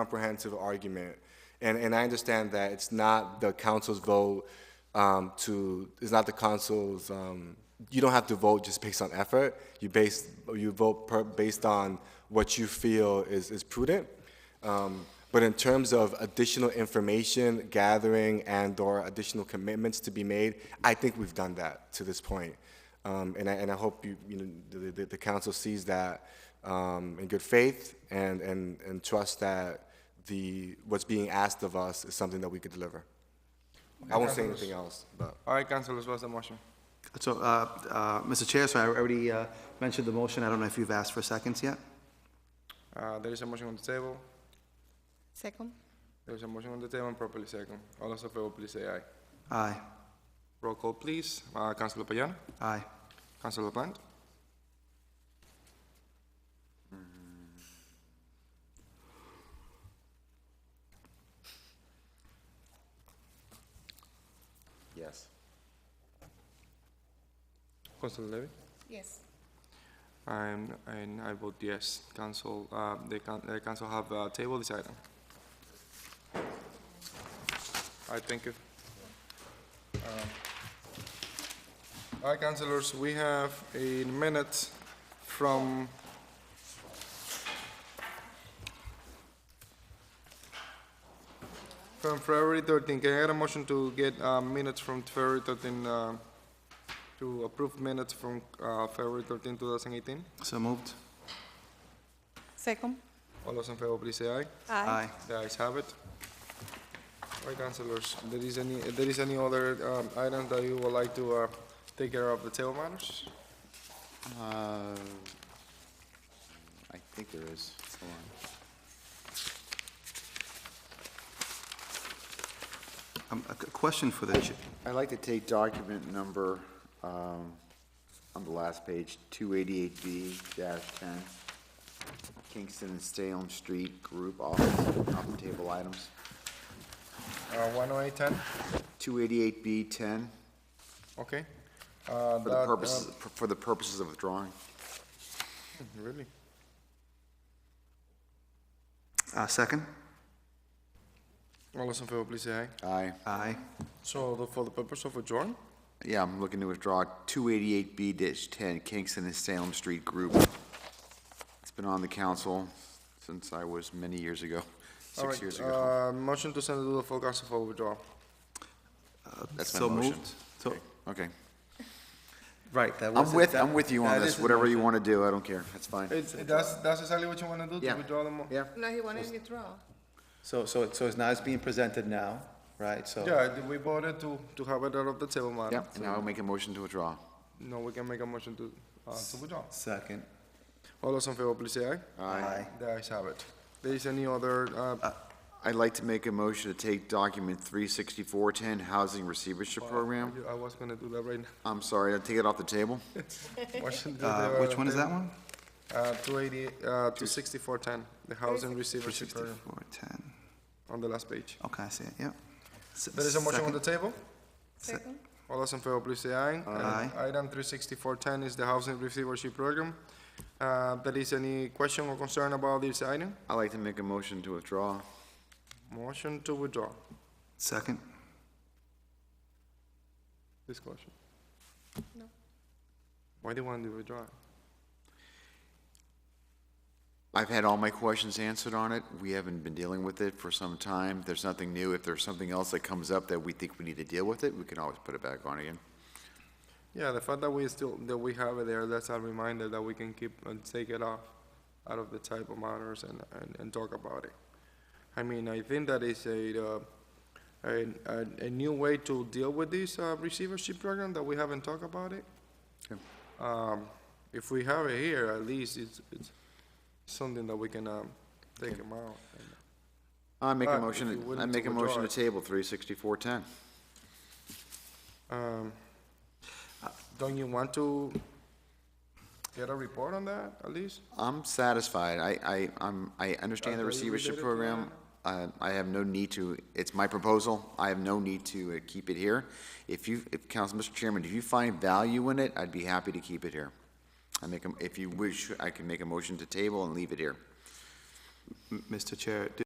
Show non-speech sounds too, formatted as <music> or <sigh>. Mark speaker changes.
Speaker 1: comprehensive argument, and, and I understand that it's not the council's vote um, to, it's not the council's, um, you don't have to vote just based on effort. You base, you vote per, based on what you feel is, is prudent. Um, But in terms of additional information gathering and/or additional commitments to be made, I think we've done that to this point. Um, And I, and I hope you, you know, the, the, the council sees that um, in good faith and, and, and trust that the, what's being asked of us is something that we could deliver. I won't say anything else, but.
Speaker 2: All right, councilors, what's the motion?
Speaker 3: So, uh, uh, Mr. Chair, so I already uh, mentioned the motion. I don't know if you've asked for seconds yet.
Speaker 2: Uh, There is a motion on the table.
Speaker 4: Second?
Speaker 2: There is a motion on the table and properly second. All those in favor, please say aye.
Speaker 3: Aye.
Speaker 2: Roll call, please. Uh, Councilor Payano?
Speaker 3: Aye.
Speaker 2: Councilor Blunt?
Speaker 1: Yes.
Speaker 2: Councilor Levy?
Speaker 4: Yes.
Speaker 2: And, and I vote yes. Council, uh, the coun- the council have uh, tabled this item. All right, thank you. Um, All right, councilors, we have a minute from... From February 13. Can I get a motion to get uh, minutes from February 13, uh, to approve minutes from uh, February 13, 2018?
Speaker 3: So moved.
Speaker 4: Second?
Speaker 2: All those in favor, please say aye.
Speaker 3: Aye.
Speaker 2: The ayes have it. All right, councilors, there is any, there is any other um, items that you would like to uh, take care of the table matters?
Speaker 5: Uh, I think there is. Hold on.
Speaker 3: Um, A c- question for the, ch-
Speaker 5: I'd like to take document number, um, on the last page, 288B-10, Kingston and Salem Street Group Office, off the table items.
Speaker 2: One oh eight ten,
Speaker 5: 288B-10,
Speaker 2: okay. Uh,
Speaker 5: for the purposes, for the purposes of withdrawing.
Speaker 2: um, Really?
Speaker 3: uh, second?
Speaker 2: All those in favor, please say aye.
Speaker 5: Aye.
Speaker 3: Aye.
Speaker 2: So the- for the purpose of adjourn,
Speaker 5: Yeah, I'm looking to withdraw 288B-10, Kingston and Salem Street Group. It's been on the council since I was many years ago,
Speaker 2: all
Speaker 5: six years
Speaker 2: right,
Speaker 5: ago.
Speaker 2: uh, motion to send it to the full council for withdrawal.
Speaker 5: That's my
Speaker 3: So
Speaker 5: motion.
Speaker 3: moved. So,
Speaker 5: Okay.
Speaker 3: right, that was.
Speaker 5: I'm
Speaker 3: it.
Speaker 5: with,
Speaker 3: That-
Speaker 5: I'm with you
Speaker 3: that
Speaker 5: on
Speaker 3: uh, is
Speaker 5: this,
Speaker 3: the
Speaker 5: whatever
Speaker 3: motion.
Speaker 5: you want to do, I don't care, that's fine.
Speaker 2: It's, that's, that's exactly what you wanna do, to
Speaker 5: Yeah.
Speaker 2: withdraw the mo-
Speaker 5: Yeah,
Speaker 4: No, he wanted to withdraw.
Speaker 3: So, so, it- so it's now it's being presented now, right? So.
Speaker 2: Yeah, we voted to, to have it out of the table matter.
Speaker 5: yeah, and now I'll make a motion to withdraw.
Speaker 2: No, we can make a motion to, uh, to withdraw.
Speaker 3: Second.
Speaker 2: All those in favor, please say aye.
Speaker 3: Aye.
Speaker 2: The ayes have it. There is any other, uh,
Speaker 5: I'd like to make a motion to take document 36410, Housing Receivership Program.
Speaker 2: I was gonna do that right
Speaker 5: <laughs>
Speaker 2: now.
Speaker 5: I'm sorry, I'll take it off the table.
Speaker 2: Motion to
Speaker 3: Uh,
Speaker 2: the-
Speaker 3: Which one is that one?
Speaker 2: Uh, two eighty, uh, two sixty-four ten, the housing receivership program,
Speaker 3: 6410.
Speaker 2: on the last page.
Speaker 3: Okay, I see it, yep. S-
Speaker 2: There is a motion on
Speaker 3: second?
Speaker 2: the table.
Speaker 4: Second?
Speaker 2: All those in favor, please say aye.
Speaker 3: Aye.
Speaker 2: Uh, Item three sixty-four ten is the housing receivership program. Uh, there is any question or concern about this item?
Speaker 5: I'd like to make a motion to withdraw.
Speaker 2: Motion to withdraw.
Speaker 3: Second.
Speaker 2: Discussion.
Speaker 4: No.
Speaker 2: Why do you want to withdraw?
Speaker 5: I've had all my questions answered on it. We haven't been dealing with it for some time. There's nothing new. If there's something else that comes up that we think we need to deal with it, we can always put it back on again.
Speaker 2: Yeah, the fact that we still, that we have it there, that's a reminder that we can keep and take it off out of the type of matters and, and, and talk about it. I mean, I think that is a, uh, a, a, a new way to deal with this uh, receivership program that we haven't talked about it. Um, if we have it here, at least it's, it's something that we can, um, take them out.
Speaker 5: I make
Speaker 2: Uh,
Speaker 5: a
Speaker 2: if you're
Speaker 5: motion,
Speaker 2: willing
Speaker 5: I
Speaker 2: to
Speaker 5: make a motion to
Speaker 2: withdraw
Speaker 5: table three sixty-four ten.
Speaker 2: Um, don't you want to get a report on that, at least?
Speaker 5: I'm satisfied. I, I, I'm, I understand the
Speaker 2: Are you
Speaker 5: receivership
Speaker 2: related to
Speaker 5: program. Uh, I have no need to, it's my proposal. I have no need to uh, keep it here. If you, if, Council, Mr. Chairman, if you find value in it, I'd be happy to keep it here. I make, a- if you wish, I can make a motion to table and leave it here.
Speaker 3: M- Mr. Chair, do-